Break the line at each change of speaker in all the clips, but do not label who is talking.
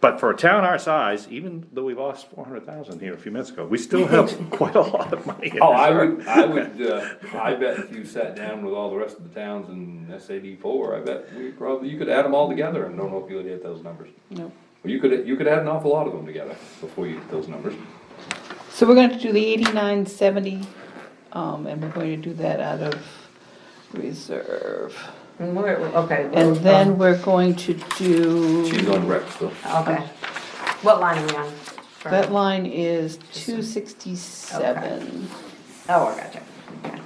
But for a town our size, even though we lost four hundred thousand here a few minutes ago, we still have quite a lot of money. in
Oh, I
reserve.
would, I would, uh, I bet if you sat down with all the rest of the towns in S A D four, I bet we probably, you could add them all together and don't know if you would hit those numbers.
No.
Well, You could, you could add an awful lot of them together before you hit those numbers.
So we're going to do the eighty-nine seventy, um, and we're going to do that out of reserve.
And we're, okay.
And then we're going to
She's
do,
on rec still.
Okay. What line are we on?
that line is two sixty-seven.
Oh, I gotcha. Okay.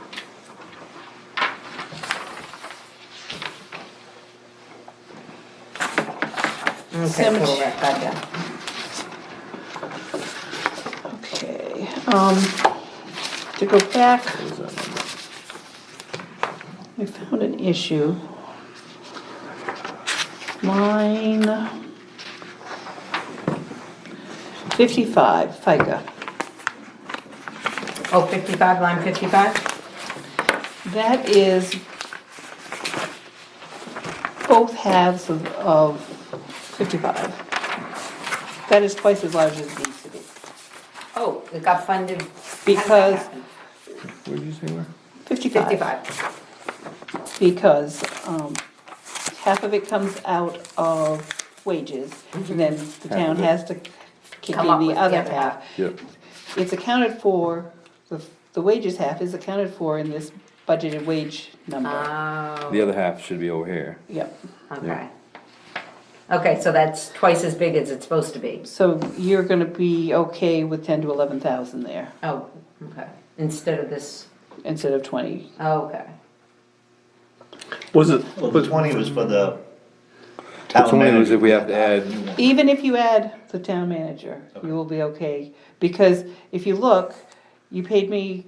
Okay,
Cemetery.
cool, right, gotcha.
Okay, um, to go back. I found an issue. Line fifty-five, FICA.
Oh, fifty-five, line fifty-five?
That is both halves of, of fifty-five. That is twice as large as it needs to be.
Oh, it got funded. how did that
Because-
happen?
Where'd you say where?
Fifty-five,
Fifty-five.
because, um, half of it comes out of wages, and then the town
Mm-hmm. of it.
has to kick in
Come up
the
with the
other
other
half.
Yep.
It's accounted for, the, the wages half is accounted for in this budgeted wage number.
Oh,
The other half should be over here.
Yep.
okay. Okay, so that's twice as big as it's supposed to be.
So you're gonna be okay with ten to eleven thousand there,
Oh, okay. Instead of this,
instead of twenty.
okay.
Was it,
Well, the twenty was for the
That's
town
only was
manager.
if we have to add,
Even if you add the town manager, you will be okay, because if you look, you paid me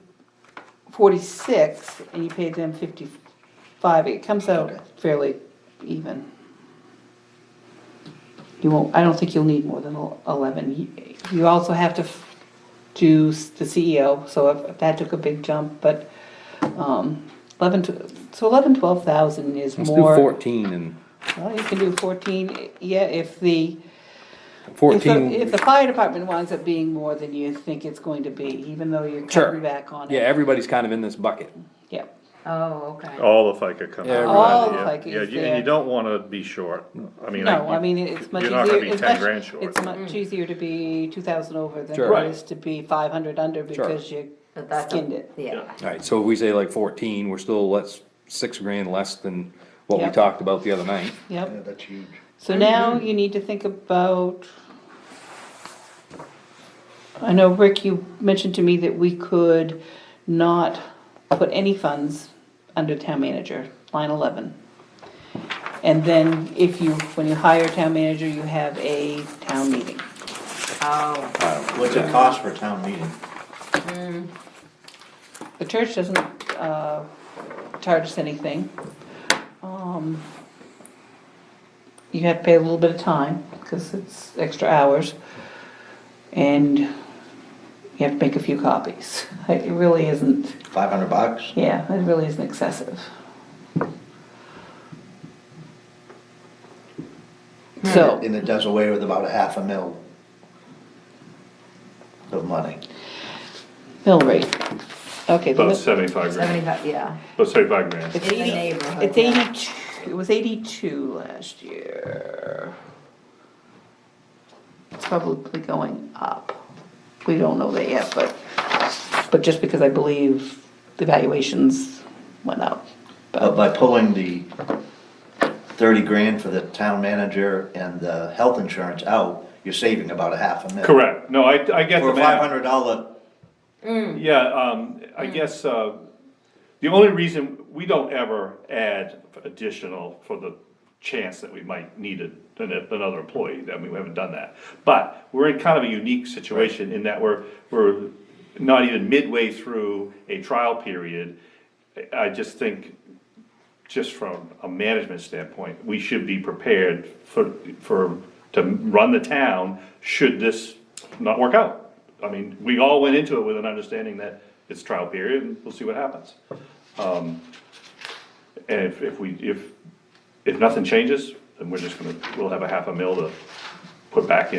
forty-six and you paid them fifty-five, it comes out fairly even. You won't, I don't think you'll need more than el- eleven, You- you also have to f- do s- the CEO, so if- if that took a big jump, but, um, eleven to, so eleven, twelve thousand is
let's do
more.
fourteen and
Well, you can do fourteen, yeah, if the. If
fourteen.
the, if the fire department winds up being more than you think it's going to be, even though you're
Sure.
cutting back on it.
Yeah, everybody's kind of in this bucket.
Yep.
Oh, okay.
all of FICA comes
Yeah,
out?
All
Yeah,
of FICA
Yeah,
is
you- and
there.
you don't wanna be short, I mean.
No,
you-
I mean, it's much
You're
easier.
not gonna be
it's
ten
much-
grand short.
It's much easier to be two thousand over than
Sure.
it is to be five hundred under because you
But that's a-
skinned it.
Yeah.
Alright, so if we say like fourteen, we're still, that's six grand less than what we
Yep.
talked about the other night.
Yep.
Yeah, that's huge.
So now you need to think about. I know, Rick, you mentioned to me that we could not put any funds under town manager, line eleven. And then if you, when you hire town manager, you have a town meeting.
Oh,
What's it cost for a town meeting?
The church doesn't, uh, charge us anything. Um, You have to pay a little bit of time, cause it's extra hours. And you have to make a few copies. It really isn't,
Five hundred bucks?
yeah, it really isn't excessive. So.
And it does away with about a half a mil of money.
Mill rate. Okay. the
About
mi-
seventy-five grand,
seventy-five, yeah.
about seventy-five grand.
It's
In the
eighty,
neighborhood,
it's
yeah.
eighty-two, it was eighty-two last year. It's probably going up. We don't know that yet, but, but just because I believe the valuations went up.
Oh,
But
But
by pulling the thirty grand for the town manager and the health insurance out, you're saving about a half a mil.
Correct, no, I, I get the
For a five
math,
hundred dollar,
yeah, um, I guess, uh, the only reason, we don't ever add additional for the chance that we might need a- an- another employee, I mean, we haven't done that. But we're in kind of a unique situation in that we're, we're not even midway through a trial period. I- I just think just from a management standpoint, we should be prepared for, for, to run the town should this not work out. I mean, we all went into it with an understanding that it's trial period and we'll see what happens. Um, And if, if we, if, if nothing changes, then we're just gonna, we'll have a half a mil to put back in.